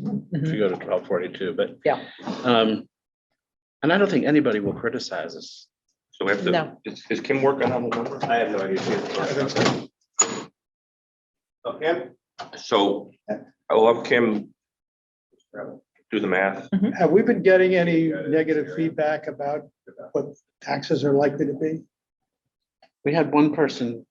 if Mhm. you go to twelve forty-two, but. Yeah. Um, and I don't think anybody will criticize us. So we have to, No. is, is Kim working on the number? I have no idea. Okay. So I'll have Kim do the math. Have we been getting any negative feedback about what taxes are likely to be We had one person,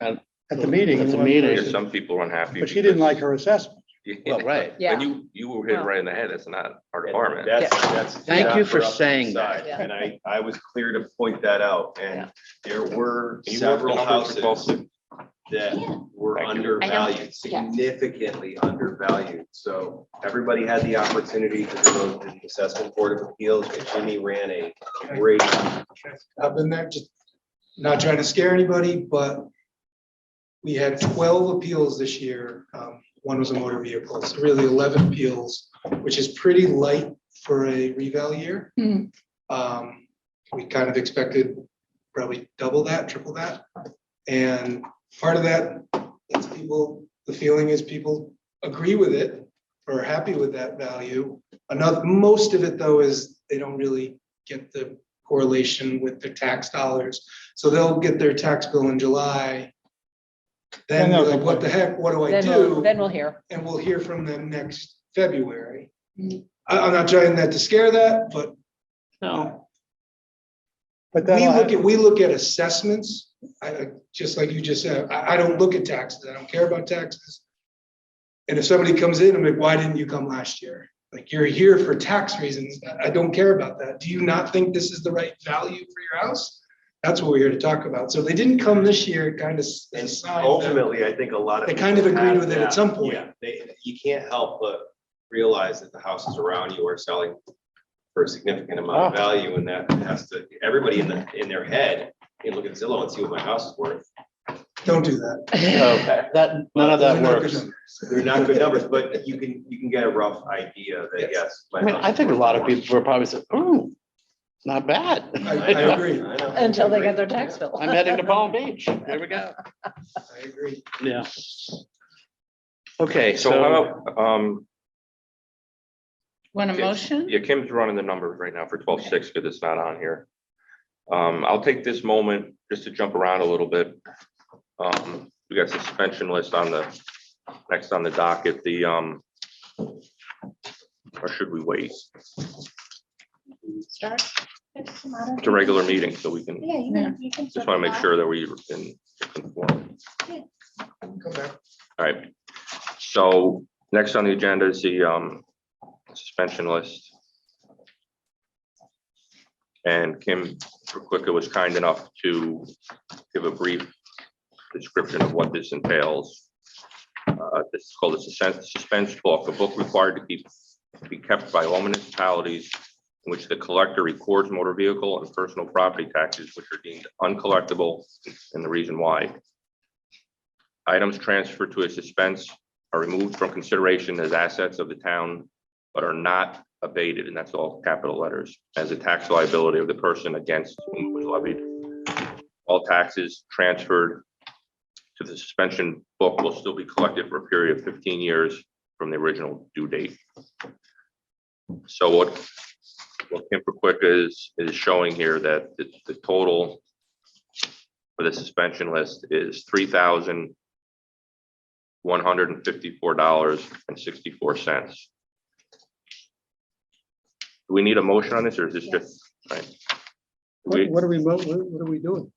at the meeting? At the one meeting. person- Some people are unhappy. But she didn't like because- her assessment. well, right. But Yeah, you, you were hit right in the head. It's not our department. That's, that's. Thank you not for us to saying decide. that. Yeah. And I, I was clear to point that out, Yeah. and there were Can you work the several numbers for both? houses that were Thank you. undervalued, yeah. significantly undervalued. So everybody had the opportunity to go to the assessment board of appeals, and Jimmy ran a great I've been there, just not trying to scare anybody, but we had twelve appeals this year. Um, one was a motor vehicle, so really eleven appeals, which is pretty light for a revale year. Hmm. Um, we kind of expected probably double that, triple that. And part of that, it's people, the feeling is people agree with it or are happy with that value. Another, most of it though is they don't really get the correlation with their tax dollars. So they'll get their tax bill in July. Then And they'll they're like, what the heck, what do I then we'll, do? then we'll hear. And we'll hear from them next February. Mm. I, I'm not trying that to scare that, but No, But we look then, at, we look at assessments, I, I- just like you just said, I, I don't look at taxes, I don't care about taxes. And if somebody comes in, I'm like, why didn't you come last year? Like, you're here for tax reasons, I- I don't care about that, do you not think this is the right value for your house? That's what we're here to talk about, so if they didn't come this year, it kind of. s- And is a sign that- ultimately, I think a lot of. They kind of people agreed have with it at that. some point. Yeah, They, you can't help but realize that the houses around you are selling for a significant amount of Oh. value and that has to, everybody in the, in their head, you look at Zillow and see what my house is worth. Don't do that. no, that, none of that Those are not good works. They're not good numbers, but you can, you can get a rough idea that, yes. my I mean, house I is think a worth lot of more. people were probably said, ooh, not bad. I, I agree, I know. Until they get their tax bill. I'm heading to Palm Beach. There we go. I agree. Yeah. Okay, So so how about, um, Want a Okay. motion? yeah, Kim's running the numbers right now for twelve six because it's not on here. Um, I'll take this moment just to jump around a little bit. Um, we got suspension list on the, next on the docket, the, um, or should we wait? Start. It's a regular meeting, so we can, Yeah, you can- you can. just want to make sure that we can conform. Come back. All right, so next on the agenda is the um suspension list. And Kim Quicker was kind enough to give a brief description of what this entails. Uh, This is called a suspend- suspense book, a book required to keep, be kept by all municipalities in which the collector records motor vehicle and personal property taxes which are deemed uncollectible and the reason why. Items transferred to a suspense are removed from consideration as assets of the town, but are not abated, and that's all capital letters, as a tax liability of the person against whom it was levied. All taxes transferred to the suspension book will still be collected for a period of fifteen years from the original due date. So what, what Kemper Quick is, is showing here that the, the total for the suspension list is three thousand one hundred and fifty-four dollars and sixty-four cents. Do we need a motion on this, or is this just? right? what We, what are we, mo- what what are we doing?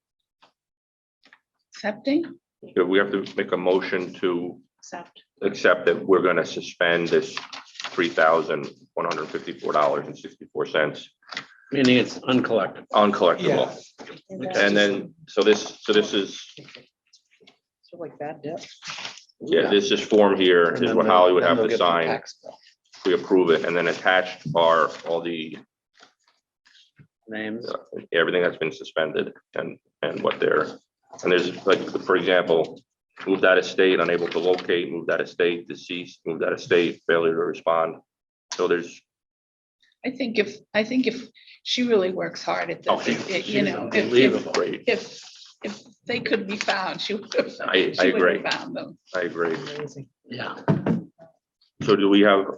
Accepting? we have to make a motion to Accept. accept that we're gonna suspend this three thousand one hundred and fifty-four dollars and sixty-four cents meaning it's uncollectible. uncollectible. So And then, so this, so this is, like that, yeah. yeah, this is form here And is then what they'll- Holly would then have they'll to get their sign. tax bill. we approve it, and then attached are all the, uh, Names. everything that's been suspended and, and what they're, and there's like, for example, moved out of state, unable to locate, moved out of state, deceased, moved out of state, failure to respond. So there's, I think if, I think if she really works hard at Oh, she- this, it- you she's know, if, if, unbelievable. great, if, if they could be found, she would have. I- I she would have agree. Found them. I agree. Amazing. Yeah. So do we have